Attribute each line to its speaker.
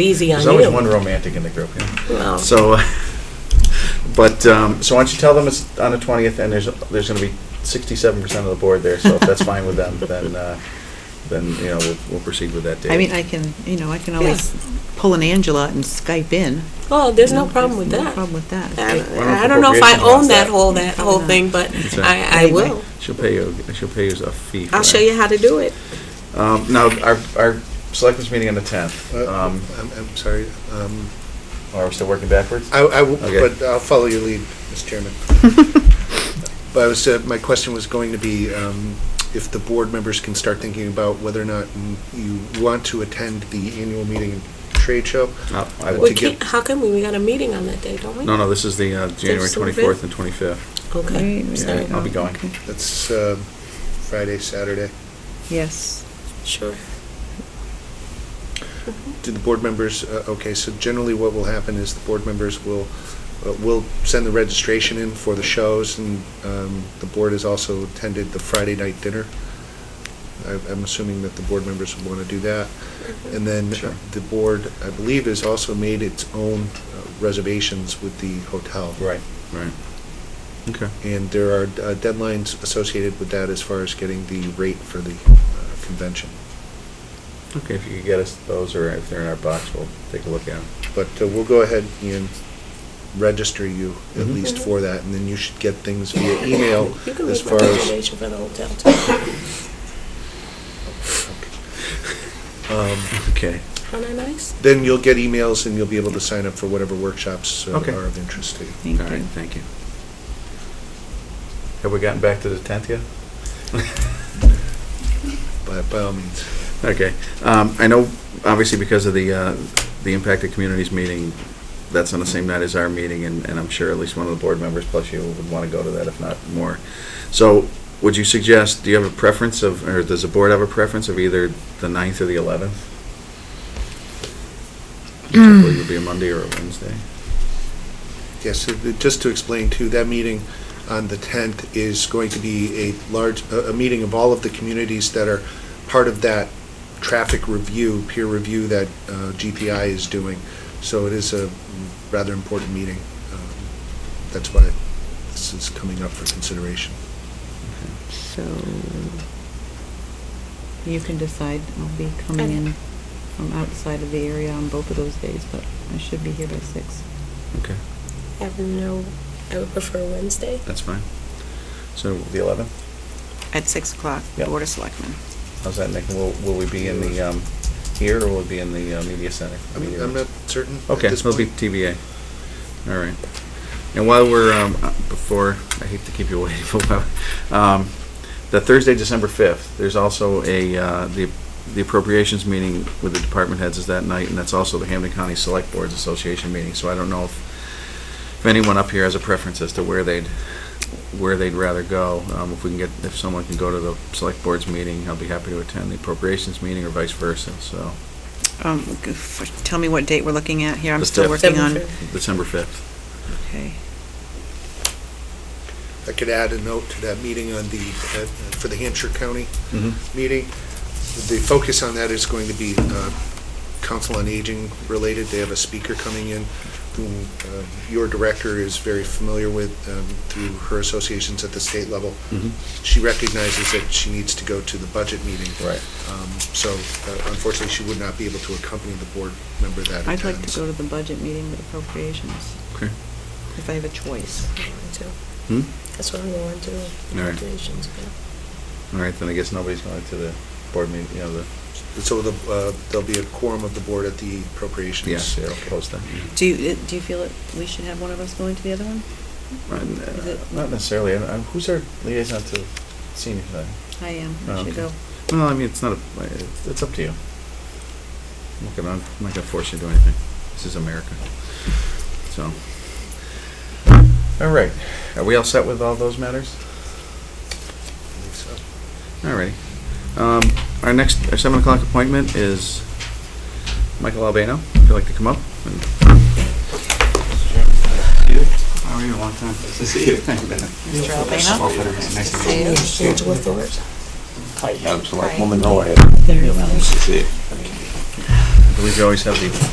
Speaker 1: Easy on
Speaker 2: There's always one
Speaker 1: you.
Speaker 2: romantic in the group. yeah.
Speaker 1: Well,
Speaker 2: So, uh, but, um, so why don't you tell them it's on the 20th, and there's, there's going to be 67% of the board there, so if that's fine with them, then, uh, then, you know, we'll- we'll proceed with that date.
Speaker 3: I mean, I can, you know, I can always pull an Angela and Skype in.
Speaker 1: Oh, there's
Speaker 3: you
Speaker 1: no
Speaker 3: know,
Speaker 1: problem with
Speaker 3: No
Speaker 1: that.
Speaker 3: problem with
Speaker 1: And
Speaker 3: that.
Speaker 2: Why don't
Speaker 1: I don't know if I
Speaker 2: appropriations
Speaker 1: own
Speaker 2: wants
Speaker 1: that
Speaker 2: that?
Speaker 1: whole, that whole
Speaker 3: Probably
Speaker 1: thing, but
Speaker 2: It's a-
Speaker 1: I, I will.
Speaker 2: She'll pay you, she'll pay you a fee. for
Speaker 1: I'll show
Speaker 2: that.
Speaker 1: you how to do it.
Speaker 2: Um, Now, our, our selectmen's meeting on the 10th.
Speaker 4: Uh,
Speaker 2: Um,
Speaker 4: I'm, I'm sorry. Um,
Speaker 2: Are we still working backwards?
Speaker 4: I, I will,
Speaker 2: Okay.
Speaker 4: but I'll follow your lead, Mr. Chairman. But I was, uh, my question was going to be, um, if the board members can start thinking about whether or not m- you want to attend the annual meeting and trade show.
Speaker 2: No, Uh, I
Speaker 1: We
Speaker 4: Well, to
Speaker 2: won't.
Speaker 4: get-
Speaker 1: can't, how come we, we got a meeting on that day, don't we?
Speaker 2: No, no, this is the uh, January
Speaker 1: There's some
Speaker 2: 24th and 25th.
Speaker 1: Okay.
Speaker 3: Right,
Speaker 2: Yeah,
Speaker 3: right.
Speaker 2: I'll be going.
Speaker 3: Okay.
Speaker 4: That's, uh, Friday, Saturday.
Speaker 3: Yes.
Speaker 1: Sure.
Speaker 4: Do the board members, uh, okay, so generally what will happen is the board members will, uh, will send the registration in for the shows, and um, the board has also attended the Friday night dinner. I- I'm assuming that the board members would want to do that. And then
Speaker 2: Sure.
Speaker 4: the board, I believe, has also made its own uh, reservations with the hotel.
Speaker 2: Right. Right. Okay.
Speaker 4: And there are uh, deadlines associated with that as far as getting the rate for the uh, convention.
Speaker 2: Okay, if you could get us those, or if they're in our box, we'll take a look at them.
Speaker 4: But uh, we'll go ahead and register you at
Speaker 2: Mhm.
Speaker 4: least for that, and then you should get things via email
Speaker 1: Mm-hmm. You can
Speaker 4: as
Speaker 1: make my
Speaker 4: far as.
Speaker 1: reservation for the hotel too.
Speaker 4: um,
Speaker 2: Okay.
Speaker 1: Aren't I nice?
Speaker 4: Then you'll get emails and you'll be able to sign up for whatever workshops uh,
Speaker 2: Okay.
Speaker 4: are of interest to you.
Speaker 2: All
Speaker 3: Thank
Speaker 2: right,
Speaker 3: you.
Speaker 2: thank you. Have we gotten back to the 10th yet?
Speaker 4: By by all means.
Speaker 2: Okay. Um, I know, obviously, because of the, uh, the impact of communities meeting, that's on the same night as our meeting, and, and I'm sure at least one of the board members plus you would want to go to that, if not more. So would you suggest, do you have a preference of, or does the board have a preference of either the 9th or the 11th?
Speaker 3: Hmm.
Speaker 2: Typically, it would be a Monday or a Wednesday.
Speaker 4: Yes, so the- just to explain too, that meeting on the 10th is going to be a large, a a meeting of all of the communities that are part of that traffic review, peer review that uh, GPI is doing. So it is a rather important meeting. Um, That's why this is coming up for consideration.
Speaker 3: So you can decide. I'll be coming in from outside of the area on both of those days, but I should be here by six.
Speaker 2: Okay,
Speaker 1: I have no, I would prefer Wednesday.
Speaker 2: that's fine. So the 11th?
Speaker 3: At six o'clock,
Speaker 2: Yep.
Speaker 3: Board of Selectmen.
Speaker 2: How's that, Nick? Will, will we be in the, um, here, or will it be in the uh, media center?
Speaker 4: I'm
Speaker 2: Media
Speaker 4: I'm
Speaker 2: room?
Speaker 4: not certain at
Speaker 2: Okay,
Speaker 4: this
Speaker 2: it'll be
Speaker 4: point.
Speaker 2: TBA. All right. And while we're, um, uh, before, I hate to keep you waiting, but, um, the Thursday, December fifth, there's also a, uh, the, the appropriations meeting with the department heads is that night, and that's also the Hampton County Select Boards Association meeting, so I don't know if, if anyone up here has a preference as to where they'd, where they'd rather go. Um, if we can get, if someone can go to the Select Boards meeting, I'll be happy to attend the appropriations meeting or vice versa, so,
Speaker 3: Um, g- f- Tell me what date we're looking at here. I'm
Speaker 2: The
Speaker 3: still
Speaker 2: fifth.
Speaker 3: working on.
Speaker 1: Seven fifth.
Speaker 2: December fifth.
Speaker 3: Okay.
Speaker 4: I could add a note to that meeting on the, uh, for the Hampshire County meeting. The focus on that is going to be uh, Council on Aging related. They have a speaker coming in whom uh, your director is very familiar with um, through her associations at the state level.
Speaker 2: Mhm.
Speaker 4: She recognizes that she needs to go to the budget meeting.
Speaker 2: Right.
Speaker 4: Um, So uh, unfortunately, she would not be able to accompany the board member that
Speaker 3: I'd like
Speaker 4: attends.
Speaker 3: to go to the budget meeting with appropriations,
Speaker 2: Okay.
Speaker 3: if I have a choice.
Speaker 2: Hmm?
Speaker 1: That's what I'm going to.
Speaker 2: All right. All right, then I guess nobody's going to the board meeting, you know, the,
Speaker 4: So the, uh, there'll be a quorum of the board at the appropriations.
Speaker 2: yes, they'll post that.
Speaker 3: Do you, do you feel that we should have one of us going to the other one?
Speaker 2: And,
Speaker 3: Is
Speaker 2: uh,
Speaker 3: it-
Speaker 2: Not necessarily, I- I- who's our liaison to senior thing?
Speaker 3: I am,
Speaker 2: Oh,
Speaker 3: I should
Speaker 2: okay.
Speaker 3: go.
Speaker 2: Well, I mean, it's not, a. it's- it's up to you. I'm not gonna, I'm not gonna force you to do anything, this is America, so. All right, are we all set with all those matters?
Speaker 4: I think so.
Speaker 2: All right. Um, Our next, our 7 o'clock appointment is Michael Albano. If you'd like to come up. and-
Speaker 5: How are you? Long time. Nice to see you.
Speaker 3: Mr. Albano?
Speaker 5: Nice to meet
Speaker 3: See you.
Speaker 1: Angela Thorpe.
Speaker 5: you. I'm
Speaker 3: Hi.
Speaker 5: Selectwoman Noah.
Speaker 1: Very well.
Speaker 5: Nice to see you.
Speaker 2: I believe you always have the